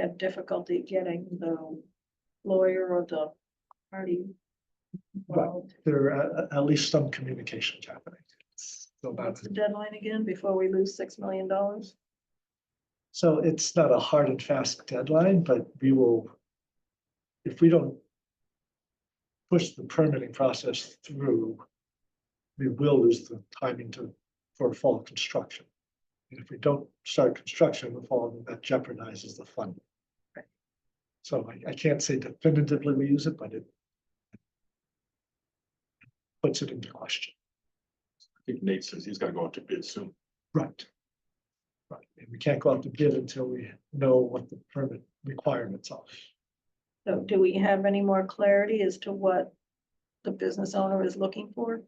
have difficulty getting the lawyer or the party. Right. involved. there are uh, at least some communications happening. So What's that's, the deadline again before we lose six million dollars? so it's not a hard and fast deadline, but we will. If we don't. Push the permitting process through. We will lose the timing to, for fall construction. And if we don't start construction in the fall, that jeopardizes the funding. Right. So I, I can't say definitively we use it, but it. Puts it into question. I think Nate says he's gonna go out to bid soon. Right. Right, and we can't go out to bid until we know what the permit requirements are. So do we have any more clarity as to what the business owner is looking for?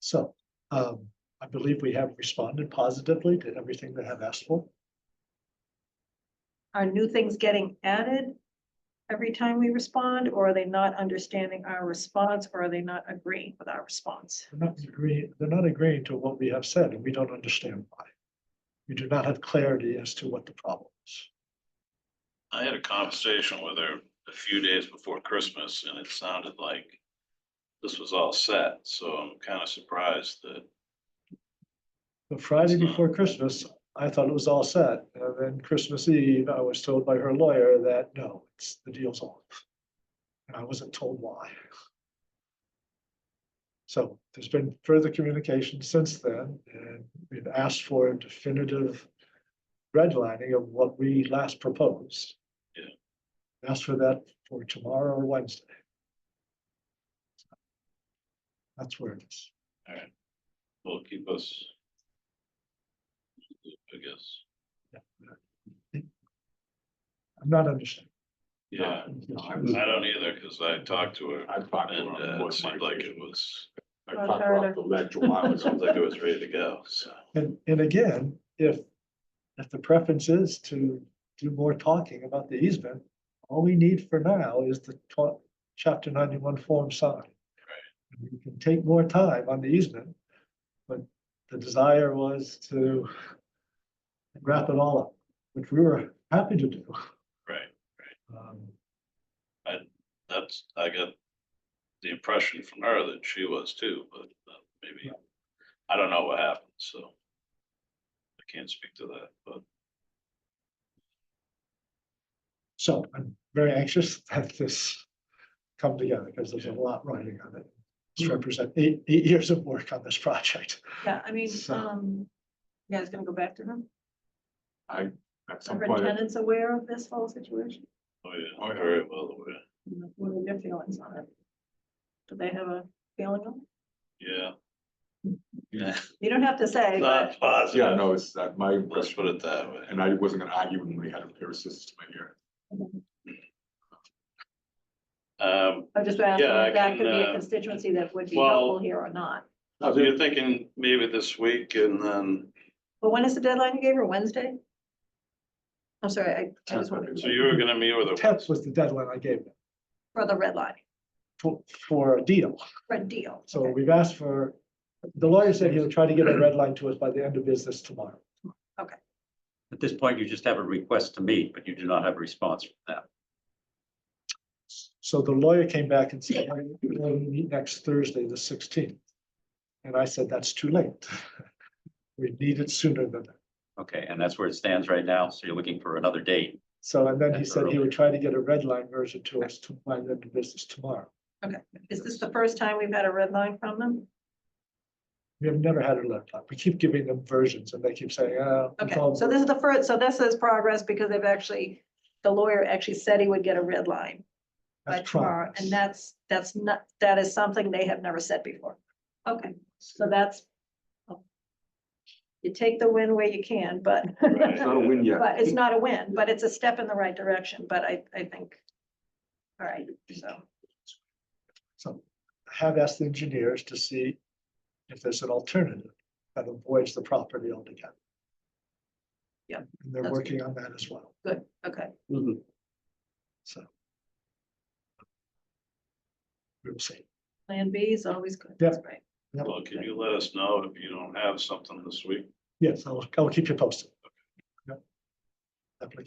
So, um, I believe we have responded positively to everything they have asked for. Are new things getting added every time we respond, or are they not understanding our response, or are they not agreeing with our response? They're not agreeing, they're not agreeing to what we have said, and we don't understand why. We do not have clarity as to what the problem is. I had a conversation with her a few days before Christmas and it sounded like this was all set, so I'm kind of surprised that, The Friday before Christmas, I thought it was all set, and then Christmas Eve, I was told by her lawyer that, no, it's, the deal's off. And I wasn't told why. So there's been further communication since then, and we've asked for a definitive redlining of what we last proposed. Yeah. Asked for that for tomorrow or Wednesday. That's where it is. all right, will keep us. I guess, I'm not understanding. yeah, I was- I don't either, because I talked to her I talked to her and on uh, board it seemed like it was, I talked to her off the ledge a while it sounds ago. like it was ready to go, so. And, and again, if, if the preference is to do more talking about the easement, all we need for now is the tw- chapter ninety-one form signed. And We can take more time on the easement, but the desire was to wrap it all up, which we were happy to do. Right, Um, that's, I got the impression from her that she was too, but uh, maybe, I don't know what happened, so. I can't speak to that, but. So I'm very anxious that this come together because there's a lot riding on it. This represent eight, eight years of work on this project. Yeah, I mean, So- um, you guys gonna go back to them? I, at some Are her point, tenants aware of this whole situation? Oh, yeah, very well aware. What are their feelings on it? Do they have a feeling? on it? Yeah. Yeah. You don't have to say, but Not positive. yeah, no, it's that my Let's impression, put it that way. and I wasn't gonna argue when we had a pair of sisters to my ear. Um, I'm just asking Yeah, I if that could be can, a uh, constituency that would be well- helpful here or not. so you're thinking maybe this week and then, But when is the deadline you gave her? Wednesday? I'm sorry, I- I, Tenth, was I wondering, think. so you were gonna meet with her, Tenth was the deadline I gave them for the red line, for, for a deal. for a deal. So Okay. we've asked for, the lawyer said he'll try to get a red line to us by the end of business tomorrow. At this point, you just have a request to meet, but you do not have a response from them. So the lawyer came back and said, "Why don't we meet next Thursday, the sixteenth. And I said, that's too late. We need it sooner than that. Okay, and that's where it stands right now. So you're looking for another date. So, and then he That's said he early. would try to get a red line version to us to find the business tomorrow. Is this the first time we've had a red line from them? We have never had a red line. We keep giving them versions and they keep saying, uh. it's Okay, all so this is the first, so this is progress because they've actually, the lawyer actually said he would get a red line by that's tomorrow, progress." and that's, that's not, that is something they have never said before. Okay, so that's. You take the win where you can, but, Right. It's not a win yet. but it's not a win, but it's a step in the right direction, but I, I think. All right, so, So I have asked the engineers to see if there's an alternative that avoids the property altogether. Yeah, And they're that's good. working on that as well, good, okay, so. We will see. plan B is always good, that's right. well, can you let us know if you don't have something this week? Yes, I'll, I'll keep you posted. Yep. Application